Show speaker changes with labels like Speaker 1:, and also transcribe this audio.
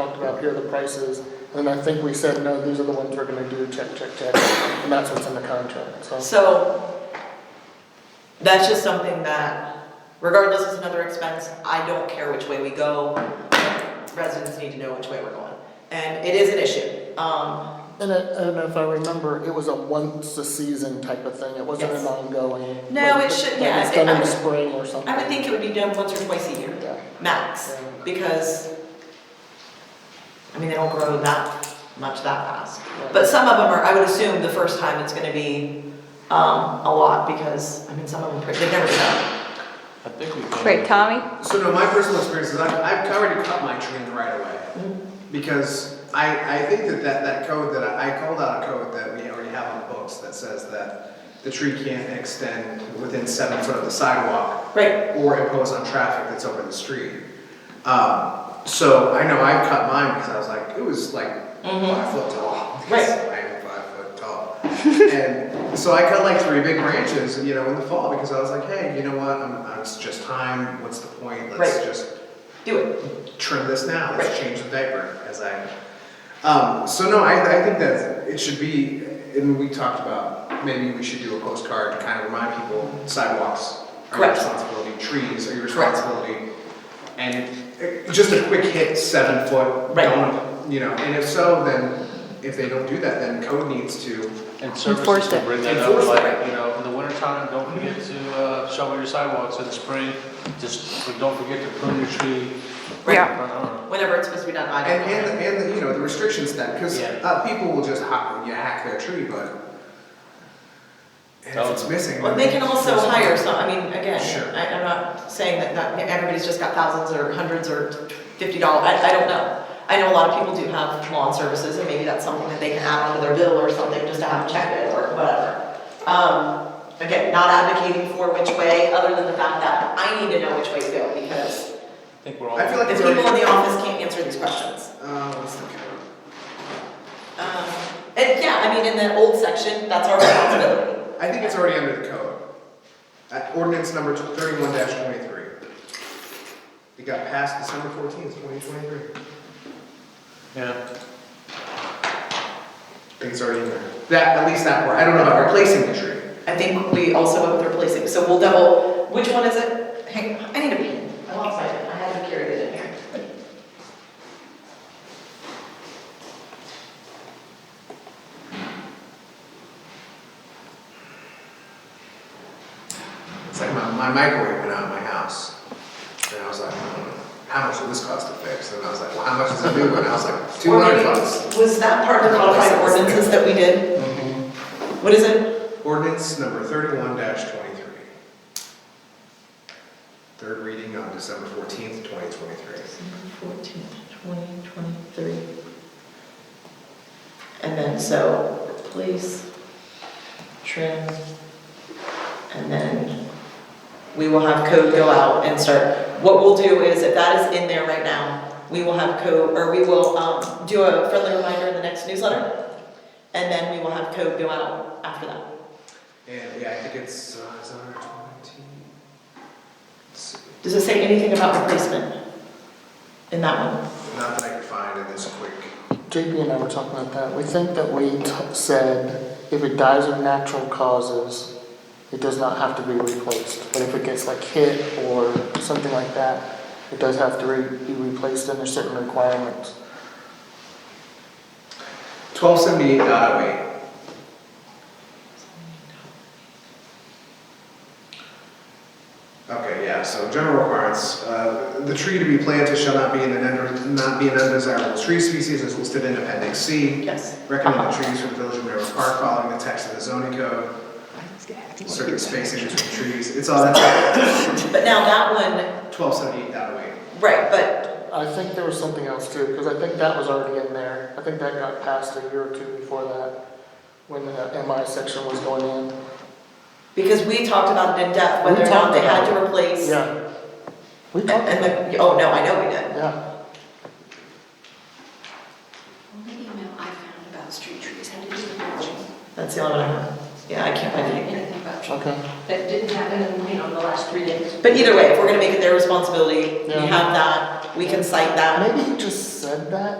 Speaker 1: up here are the prices. And I think we said, no, these are the ones we're gonna do, check, check, check, and that's what's in the contract, so.
Speaker 2: So, that's just something that, regardless, it's another expense, I don't care which way we go. Residents need to know which way we're going, and it is an issue, um,
Speaker 1: And I, and if I remember, it was a once a season type of thing, it wasn't an
Speaker 2: Yes.
Speaker 1: ongoing.
Speaker 2: No,
Speaker 1: like,
Speaker 2: it should-
Speaker 1: like
Speaker 2: yeah,
Speaker 1: It's
Speaker 2: it-
Speaker 1: done in
Speaker 2: I-
Speaker 1: the spring or something.
Speaker 2: I would think it would be done once or twice a year,
Speaker 1: Yeah.
Speaker 2: max, because, I mean, they don't grow that much that fast. But some of them are, I would assume the first time it's gonna be, um, a lot, because, I mean, some of them, they've never done.
Speaker 3: I think we can.
Speaker 4: Wait, Tommy?
Speaker 5: So no, my personal experience is I've, I've already cut my tree in the right away. Because I, I think that, that that code that I, I called out a code that we already have on the books that says that the tree can't extend within seven foot of the sidewalk
Speaker 2: Right,
Speaker 5: or impose on traffic that's over the street. Um, so I know I've cut mine because I was like, it was like five foot tall.
Speaker 2: Mm-hmm. Right.
Speaker 5: I am five foot tall. and so I cut like three big branches, you know, in the fall because I was like, hey, you know what? I'm, I'm, it's just time. What's the point? Let's
Speaker 2: Right.
Speaker 5: just
Speaker 2: do it.
Speaker 5: trim this now, let's
Speaker 2: Right.
Speaker 5: change the diaper, as I, um, so no, I, I think that it should be, and we talked about, maybe we should do a postcard to kind of remind people sidewalks are your
Speaker 2: Correct.
Speaker 5: responsibility, trees are your
Speaker 2: Correct.
Speaker 5: responsibility. And uh, just a quick hit, seven foot,
Speaker 2: Right.
Speaker 5: don't, you know, and if so, then, if they don't do that, then code needs to,
Speaker 3: And services
Speaker 4: Enforce
Speaker 3: can
Speaker 4: it.
Speaker 3: bring that up,
Speaker 5: Enforce it.
Speaker 3: like, you know, in the wintertime, don't forget to uh, shovel your sidewalks, in the spring, just, but don't forget to prune your tree.
Speaker 4: Yeah.
Speaker 3: Uh,
Speaker 2: whenever it's supposed to be done, I
Speaker 5: and,
Speaker 2: don't know.
Speaker 5: and, and, you know, the restrictions that, because,
Speaker 3: Yeah.
Speaker 5: uh, people will just hack, yeah, hack their tree, but and if it's missing.
Speaker 2: Well,
Speaker 5: then
Speaker 2: they can also
Speaker 5: it's-
Speaker 2: hire some, I mean, again,
Speaker 5: Sure.
Speaker 2: I, I'm not saying that, that everybody's just got thousands or hundreds or fifty dollars, I, I don't know. I know a lot of people do have lawn services, and maybe that's something that they can add onto their bill or something, just to have check it or whatever. Um, again, not advocating for which way, other than the fact that I need to know which way to go, because
Speaker 3: I think we're all.
Speaker 5: I feel like
Speaker 2: the
Speaker 5: it's
Speaker 2: people
Speaker 5: already-
Speaker 2: in the office can't answer these questions.
Speaker 5: Uh, what's the code?
Speaker 2: Um, and yeah, I mean, in the old section, that's our responsibility.
Speaker 5: I think it's already under the code. Uh, ordinance number thirty-one twenty-three. It got passed December fourteenth, twenty twenty-three.
Speaker 3: Yeah,
Speaker 5: I think it's already in there. That, at least that part, I don't know about replacing the tree.
Speaker 2: I think we also went with replacing, so we'll double, which one is it? Hang, I need a pen. I lost my pen, I had to carry it in here.
Speaker 5: It's like my, my microwave went out of my house. And I was like, hmm, how much will this cost to fix? And I was like, well, how much is a new one? I was like, two
Speaker 2: Or
Speaker 5: hundred
Speaker 2: maybe-
Speaker 5: bucks.
Speaker 2: Was that part of the modified ordinances that we did?
Speaker 5: Mm-hmm.
Speaker 2: What is it?
Speaker 5: Ordinance number thirty-one twenty-three. Third reading on December fourteenth, twenty twenty-three.
Speaker 2: Fourteen, twenty, twenty-three. And then, so, replace, trim, and then we will have code go out and start. What we'll do is, if that is in there right now, we will have code, or we will, um, do a friendly reminder in the next newsletter. And then we will have code go out after that.
Speaker 5: And yeah, I think it's, uh, it's under twenty. Let's see.
Speaker 2: Does it say anything about replacement in that one?
Speaker 5: Not that I can find in this quick.
Speaker 1: JP and I were talking about that, we think that we t- said if it dies of natural causes, it does not have to be replaced, but if it gets like hit or something like that, it does have to re- be replaced under certain requirements.
Speaker 5: Twelve seventy-eight dot oh eight. Okay, yeah, so general requirements, uh, the tree to be planted shall not be an, under- not be an undesirable tree species as listed in appendix C.
Speaker 2: Yes.
Speaker 5: Recommended trees for the village of Mineral Park following the text of the zoning code, certain spacing between trees, it's all that,
Speaker 2: But now that one,
Speaker 5: twelve seventy-eight dot oh eight.
Speaker 2: right, but,
Speaker 1: I think there was something else too, because I think that was already in there, I think that got passed a year or two before that, when the MI section was going in.
Speaker 2: because we talked about it in depth,
Speaker 1: We
Speaker 2: whether or not
Speaker 1: talked
Speaker 2: they had
Speaker 1: about
Speaker 2: to replace.
Speaker 1: Yeah. We
Speaker 2: And,
Speaker 1: talked,
Speaker 2: and the, oh, no, I know we did.
Speaker 1: yeah,
Speaker 6: Only email I found about street trees had to do with mulching.
Speaker 2: That's the only one I have. Yeah, I can't find it.
Speaker 6: Anything about mulching.
Speaker 1: okay.
Speaker 6: That didn't happen in, you know, the last three days.
Speaker 2: But either way, if we're gonna make it their responsibility, we
Speaker 1: Yeah.
Speaker 2: have that, we can cite that.
Speaker 1: Maybe he just said that